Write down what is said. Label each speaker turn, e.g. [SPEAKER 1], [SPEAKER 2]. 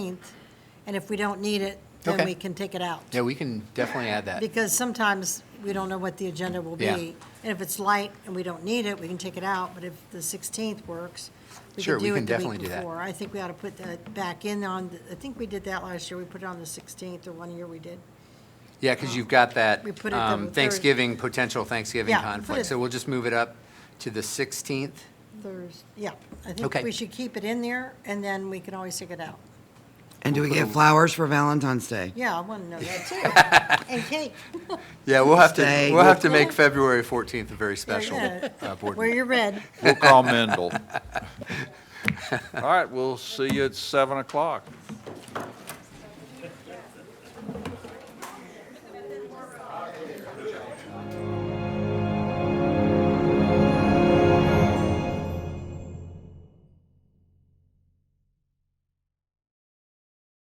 [SPEAKER 1] 15th, and if we don't need it, then
[SPEAKER 2] Okay.
[SPEAKER 1] we can take it out.
[SPEAKER 2] Yeah, we can definitely add that.
[SPEAKER 1] Because sometimes we don't know what the agenda will be.
[SPEAKER 2] Yeah.
[SPEAKER 1] And if it's light and we don't need it, we can take it out, but if the 16th works, we
[SPEAKER 2] Sure,
[SPEAKER 1] can
[SPEAKER 2] we
[SPEAKER 1] do
[SPEAKER 2] can
[SPEAKER 1] it the
[SPEAKER 2] definitely
[SPEAKER 1] week
[SPEAKER 2] do that.
[SPEAKER 1] before. I think we ought to put that back in on, the- I think we did that last year, we put it on the 16th, or one year we did.
[SPEAKER 2] Yeah, because you've got that
[SPEAKER 1] We put it
[SPEAKER 2] um,
[SPEAKER 1] the third-
[SPEAKER 2] Thanksgiving, potential Thanksgiving
[SPEAKER 1] Yeah, we put
[SPEAKER 2] conflict.
[SPEAKER 1] it-
[SPEAKER 2] So we'll just move it up to the 16th.
[SPEAKER 1] Thursday, yeah. I
[SPEAKER 2] Okay.
[SPEAKER 1] think we should keep it in there, and then we can always take it out.
[SPEAKER 3] And do we get flowers for Valentine's Day?
[SPEAKER 1] Yeah, I want to know that too. And cake,
[SPEAKER 2] Yeah, we'll have to,
[SPEAKER 3] Stay.
[SPEAKER 2] we'll have to make February 14th a very special
[SPEAKER 1] yeah.
[SPEAKER 2] uh, board
[SPEAKER 1] wear
[SPEAKER 2] meeting.
[SPEAKER 1] your red.
[SPEAKER 4] We'll call Mendel. All right, we'll see you at 7 o'clock.